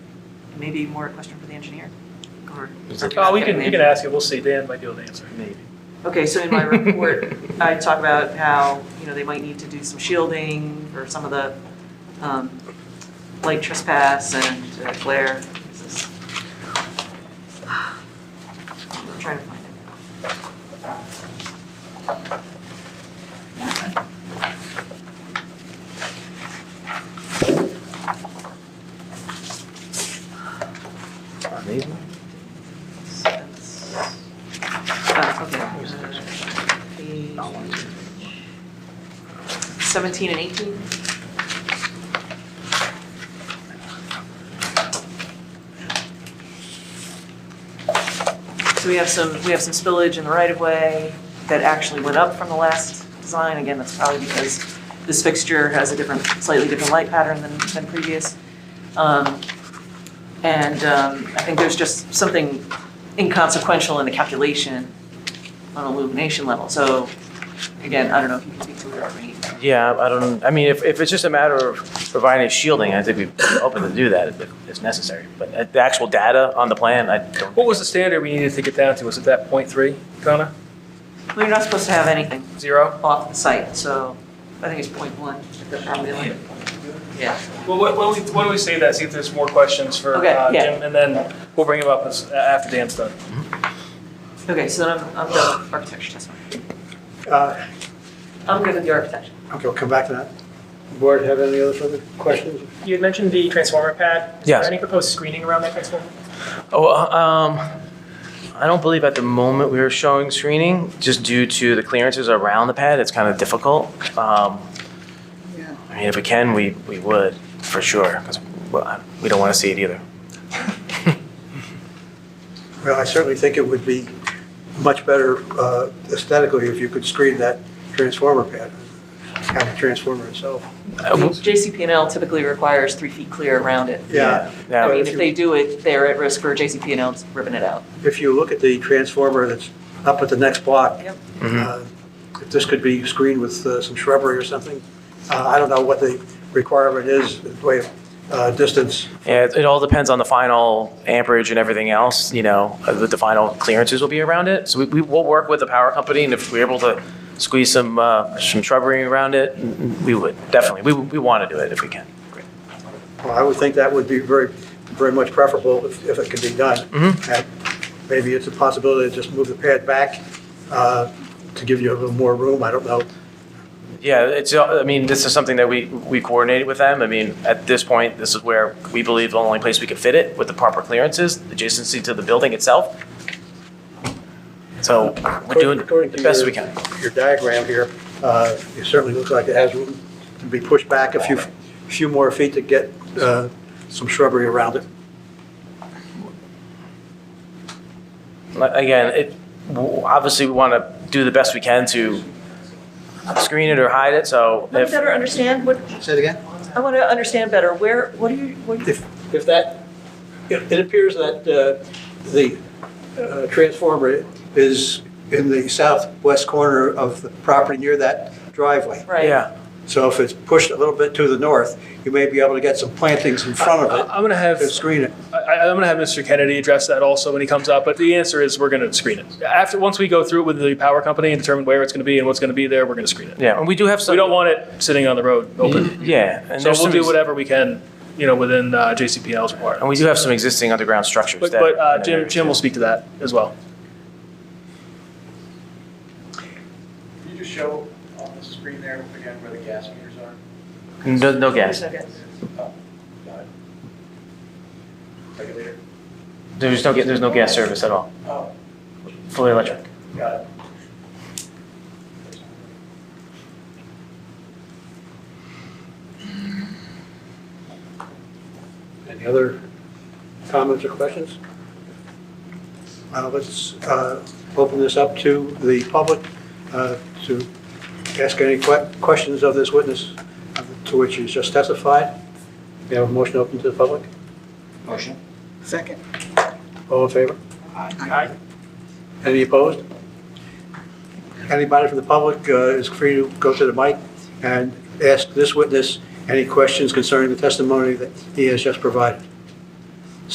Maybe more a question for the engineer? Or- Is it- Oh, we can, you can ask it, we'll see, Dan might be able to answer. Maybe. Okay, so in my report, I talk about how, you know, they might need to do some shielding for some of the um, light trespass and uh, glare. This is- I'm trying to find it. Maybe. So that's- oh, okay. uh, page 17 and 18? So we have some, we have some spillage in the right-of-way that actually went up from the last design. Again, that's probably because this fixture has a different, slightly different light pattern than, than previous. Um, And um, I think there's just something inconsequential in the calculation on illumination level. So again, I don't know if you can speak to it or me. Yeah, I don't, I mean, if, if it's just a matter of providing shielding, I think we're open to do that if it's necessary. But uh, the actual data on the plan, I don't. What was the standard we needed to get down to, was it that point three, Donna? Well, you're not supposed to have anything Zero? off the site, so I think it's point one at the property line. Yeah. Well, why why don't we, why don't we save that, see if there's more questions for Okay, uh, yeah. Jim, and then we'll bring him up as- a- after Dan's done. Okay, so then I'm, I'm done with architecture testimony. Uh, I'm good with the architecture. Okay, we'll come back to that. Board have any other further questions? You had mentioned the transformer pad. Is Yes. there any proposed screening around that transformer? Oh, uh, um, I don't believe at the moment we are showing screening, just due to the clearances around the pad, it's kind of difficult. Um, I mean, if we can, we, we would, for sure, because we don't want to see it either. Well, I certainly think it would be much better uh, aesthetically if you could screen that transformer pad, kind of transformer itself. Uh, JCP&L typically requires three feet clear around it. Yeah. I Yeah, mean, if they do it, they're at risk for JCP&L ripping it out. If you look at the transformer that's up at the next block, Yep. Mhm. uh, if this could be screened with uh, some shrubbery or something, uh, I don't know what the requirement is, in the way of uh, distance. Yeah, it, it all depends on the final amperage and everything else, you know, uh, what the final clearances will be around it. So we, we will work with the power company, and if we're able to squeeze some, uh, some shrubbery around it, we would, definitely. We, we want to do it if we can. Well, I would think that would be very, very much preferable if, if it could be done. Mm-hmm. And Maybe it's a possibility to just move the pad back uh, to give you a little more room, I don't know. Yeah, it's, uh, I mean, this is something that we, we coordinated with them. I mean, at this point, this is where we believe the only place we could fit it with the proper clearances, adjacency to the building itself. So we're doing According to the best your- we can. Your diagram here, uh, it certainly looks like it has room to be pushed back a few, few more feet to get uh, some shrubbery around it. Like, Again, it, w- obviously, we want to do the best we can to screen it or hide it, so I if, better understand what, Say it again? I want to understand better, where, what do you, what do you? If, if that, it it appears that uh, the uh, transformer is in the southwest corner of the property near that driveway. Right. yeah. So if it's pushed a little bit to the north, you may be able to get some plantings in front I- of I'm gonna it have, to screen it. I- I- I'm gonna have Mr. Kennedy address that also when he comes up, but the answer is we're gonna screen it. After, once we go through it with the power company and determine where it's gonna be and what's gonna be there, we're gonna screen it. Yeah, and we do have some. We don't want it sitting on the road open. Yeah. and So there's we'll some do ex- whatever we can, you know, within uh, JCPL's And requirement. we do have some existing underground structures. But, that- but uh, Jim, Jim will speak to that as well. Can you just show on the screen there again where the gas meters are? No, no gas. Oh, got it. Take it later. There's no, ga- there's no gas service at all, Oh, fully electric. got it. Any other comments or questions? Uh, Let's uh, open this up to the public uh, to ask any que- questions of this witness uh, to which he's just testified. We have a motion open to the public. Motion? Second. All in favor? Aye. Any opposed? Anybody from the public uh, is free to go to the mic and ask this witness any questions concerning the testimony that he has just provided.